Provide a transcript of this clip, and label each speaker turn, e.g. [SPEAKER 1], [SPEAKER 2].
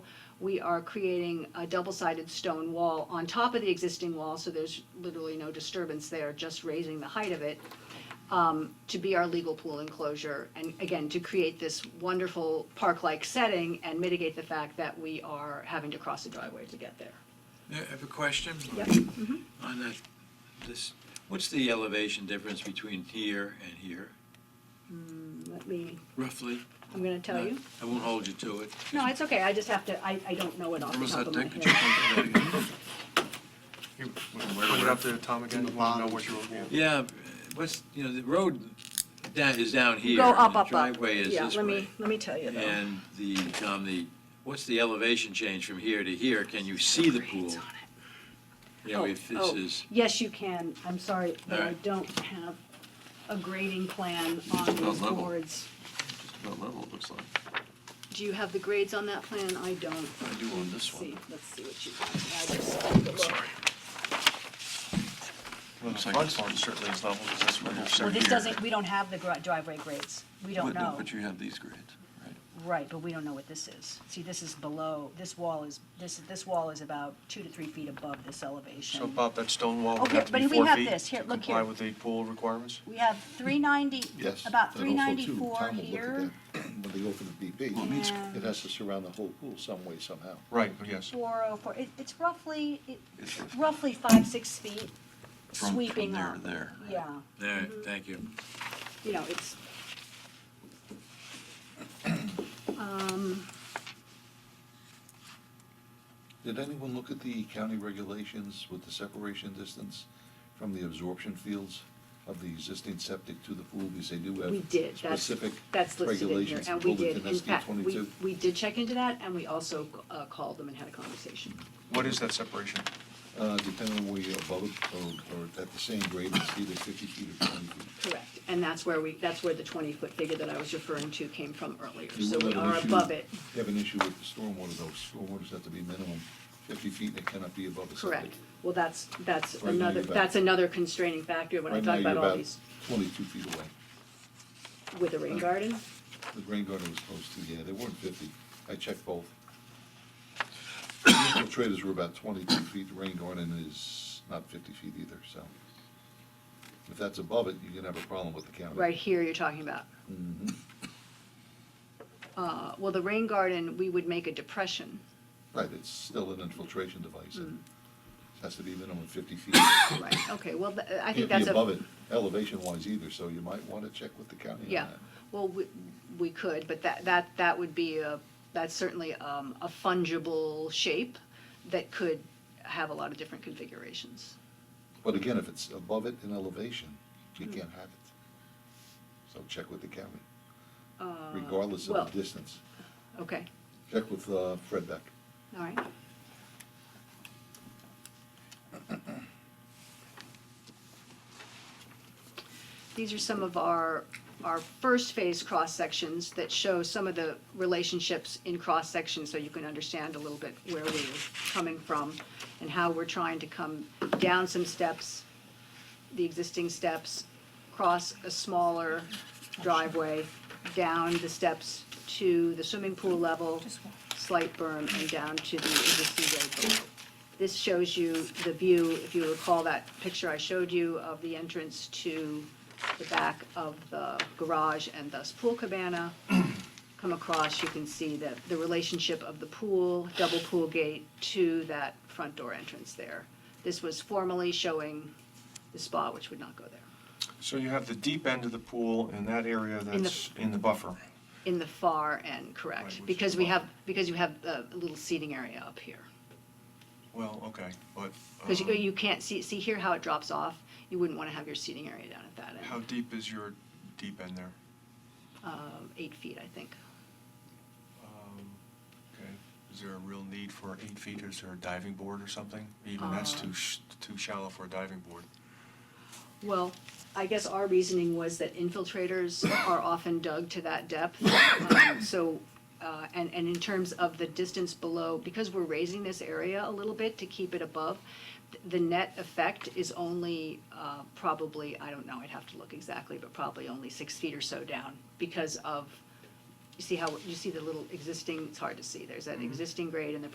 [SPEAKER 1] we are creating a double-sided stone wall on top of the existing wall, so there's literally no disturbance there, just raising the height of it, um, to be our legal pool enclosure, and again, to create this wonderful park-like setting and mitigate the fact that we are having to cross a driveway to get there.
[SPEAKER 2] I have a question
[SPEAKER 1] Yep.
[SPEAKER 2] on that, this, what's the elevation difference between here and here,
[SPEAKER 1] Let me,
[SPEAKER 2] roughly?
[SPEAKER 1] I'm gonna tell you.
[SPEAKER 2] I won't hold you to it.
[SPEAKER 1] No, it's okay, I just have to, I, I don't know it off the
[SPEAKER 2] Almost
[SPEAKER 1] top
[SPEAKER 2] had
[SPEAKER 1] of my
[SPEAKER 2] that, could you
[SPEAKER 1] head.
[SPEAKER 2] think of that?
[SPEAKER 3] Put it up there, Tom, again, you know what you're looking at.
[SPEAKER 2] Yeah, what's, you know, the road down, is down here.
[SPEAKER 1] Go
[SPEAKER 2] and
[SPEAKER 1] up, up, up.
[SPEAKER 2] The driveway is this
[SPEAKER 1] Yeah, let
[SPEAKER 2] way.
[SPEAKER 1] me, let me tell you though.
[SPEAKER 2] And the, Tom, the, what's the elevation change from here to here? Can you see the pool?
[SPEAKER 1] Grades on it.
[SPEAKER 2] You know,
[SPEAKER 1] Oh,
[SPEAKER 2] if this
[SPEAKER 1] oh,
[SPEAKER 2] is,
[SPEAKER 1] Yes, you can, I'm sorry, but I
[SPEAKER 2] Alright.
[SPEAKER 1] don't have a grading plan on these
[SPEAKER 3] level.
[SPEAKER 1] boards.
[SPEAKER 3] What level it looks like.
[SPEAKER 1] Do you have the grades on that plan? I don't.
[SPEAKER 3] I do on this one.
[SPEAKER 1] See, let's see what you got. I just have to look.
[SPEAKER 3] Looks like this one certainly is level, because that's what
[SPEAKER 1] Well, this doesn't, we don't have the gri- driveway grades, we don't know.
[SPEAKER 3] But you have these grades, right?
[SPEAKER 1] Right, but we don't know what this is. See, this is below, this wall is, this, this wall is about two to three feet above this elevation.
[SPEAKER 3] So Bob, that stone wall
[SPEAKER 1] Oh,
[SPEAKER 3] would
[SPEAKER 1] here,
[SPEAKER 3] have to be
[SPEAKER 1] but we
[SPEAKER 3] four
[SPEAKER 1] have
[SPEAKER 3] feet
[SPEAKER 1] this. Here,
[SPEAKER 3] to
[SPEAKER 1] look
[SPEAKER 3] comply
[SPEAKER 1] here.
[SPEAKER 3] with the pool requirements?
[SPEAKER 1] We have three ninety,
[SPEAKER 4] Yes.
[SPEAKER 1] about
[SPEAKER 4] that also,
[SPEAKER 1] three
[SPEAKER 4] too.
[SPEAKER 1] ninety-four
[SPEAKER 4] Tom will look at
[SPEAKER 1] here,
[SPEAKER 4] that When they go for the
[SPEAKER 1] Well, it meets-
[SPEAKER 4] BP, it has to surround the whole pool some way somehow.
[SPEAKER 3] Right, yes.
[SPEAKER 1] four oh four, it, it's roughly, it,
[SPEAKER 3] It's
[SPEAKER 1] roughly five, six feet
[SPEAKER 3] From- from
[SPEAKER 1] sweeping
[SPEAKER 3] there
[SPEAKER 1] up.
[SPEAKER 3] to there, right.
[SPEAKER 1] Yeah,
[SPEAKER 2] all right, thank you.
[SPEAKER 1] you know, it's.
[SPEAKER 4] Did anyone look at the county regulations with the separation distance from the absorption fields of the existing septic to the pool? Because they do
[SPEAKER 1] We
[SPEAKER 4] have
[SPEAKER 1] did, that's,
[SPEAKER 4] specific
[SPEAKER 1] that's listed in here,
[SPEAKER 4] regulations
[SPEAKER 1] and we
[SPEAKER 4] pulled
[SPEAKER 1] did,
[SPEAKER 4] into
[SPEAKER 1] in
[SPEAKER 4] SD
[SPEAKER 1] fact, we,
[SPEAKER 4] twenty-two.
[SPEAKER 1] we did check into that, and we also, uh, called them and had a conversation.
[SPEAKER 3] What is that separation?
[SPEAKER 4] Uh, depending on where you're above it or, or at the same grade, it's either fifty feet or twenty feet.
[SPEAKER 1] Correct, and that's where we, that's where the twenty-foot figure that I was referring to came from earlier,
[SPEAKER 4] You
[SPEAKER 1] so
[SPEAKER 4] will
[SPEAKER 1] we
[SPEAKER 4] have an
[SPEAKER 1] are
[SPEAKER 4] issue-
[SPEAKER 1] above it,
[SPEAKER 4] You have an issue with the stormwater, though. Stormwaters have to be minimum fifty feet, and it cannot be above the septic.
[SPEAKER 1] correct. Well, that's, that's
[SPEAKER 4] Right now you're
[SPEAKER 1] another,
[SPEAKER 4] back.
[SPEAKER 1] that's another constraining factor when I
[SPEAKER 4] Right
[SPEAKER 1] talk
[SPEAKER 4] now, you're
[SPEAKER 1] about all these,
[SPEAKER 4] Twenty-two feet away.
[SPEAKER 1] with the rain garden.
[SPEAKER 4] The rain garden was close to, yeah, they weren't fifty. I checked both. Traders were about twenty-two feet. The rain garden is not fifty feet either, so. If that's above it, you can have a problem with the county.
[SPEAKER 1] Right here you're talking about.
[SPEAKER 4] Mm-hmm.
[SPEAKER 1] Uh, well, the rain garden, we would make a depression,
[SPEAKER 4] Right, it's still an infiltration device,
[SPEAKER 1] Hmm.
[SPEAKER 4] and has to be minimum fifty feet.
[SPEAKER 1] right, okay, well, th- I think
[SPEAKER 4] Can't
[SPEAKER 1] that's
[SPEAKER 4] be
[SPEAKER 1] a.
[SPEAKER 4] above it elevation-wise either, so you might want to check with the county on
[SPEAKER 1] Yeah,
[SPEAKER 4] that.
[SPEAKER 1] well, we, we could, but that, that, that would be a, that's certainly, um, a fungible shape that could have a lot of different configurations.
[SPEAKER 4] But again, if it's above it in elevation, you can't have it. So check with the county, regardless
[SPEAKER 1] well-
[SPEAKER 4] of the distance.
[SPEAKER 1] Okay,
[SPEAKER 4] Check with uh, Fred Beck.
[SPEAKER 1] all right. These are some of our, our first phase cross-sections that show some of the relationships in cross-sections, so you can understand a little bit where we're coming from and how we're trying to come down some steps, the existing steps, cross a smaller driveway, down the steps to the swimming pool level, slight berm, and down to the existing road below. This shows you the view, if you recall that picture I showed you of the entrance to the back of the garage and thus pool cabana. Come across, you can see that the relationship of the pool, double pool gate to that front door entrance there. This was formerly showing the spa, which would not go there.
[SPEAKER 3] So you have the deep end of the pool and that area
[SPEAKER 1] the-
[SPEAKER 3] that's in the buffer.
[SPEAKER 1] In the far end,
[SPEAKER 3] Right, which
[SPEAKER 1] correct,
[SPEAKER 3] is
[SPEAKER 1] because
[SPEAKER 3] the
[SPEAKER 1] we
[SPEAKER 3] bottom.
[SPEAKER 1] have, because you have a little seating area up here.
[SPEAKER 3] Well, okay, but
[SPEAKER 1] Because you,
[SPEAKER 3] um,
[SPEAKER 1] you can't see, see here how it drops off, you wouldn't want to have your seating area down at that
[SPEAKER 3] how
[SPEAKER 1] end,
[SPEAKER 3] deep is your deep end there?
[SPEAKER 1] um, eight feet, I think.
[SPEAKER 3] Um, Okay, is there a real need for eight feet? Is there a diving board or something? Even that's
[SPEAKER 1] Uh.
[SPEAKER 3] too, sh- too shallow for a diving board.
[SPEAKER 1] Well, I guess our reasoning was that infiltrators are often dug to that depth. um, So, uh, and, and in terms of the distance below, because we're raising this area a little bit to keep it above, th- the net effect is only uh, probably, I don't know, I'd have to look exactly, but probably only six feet or so down because of, you see how, you see the little existing, it's hard to see, there's that existing grade and the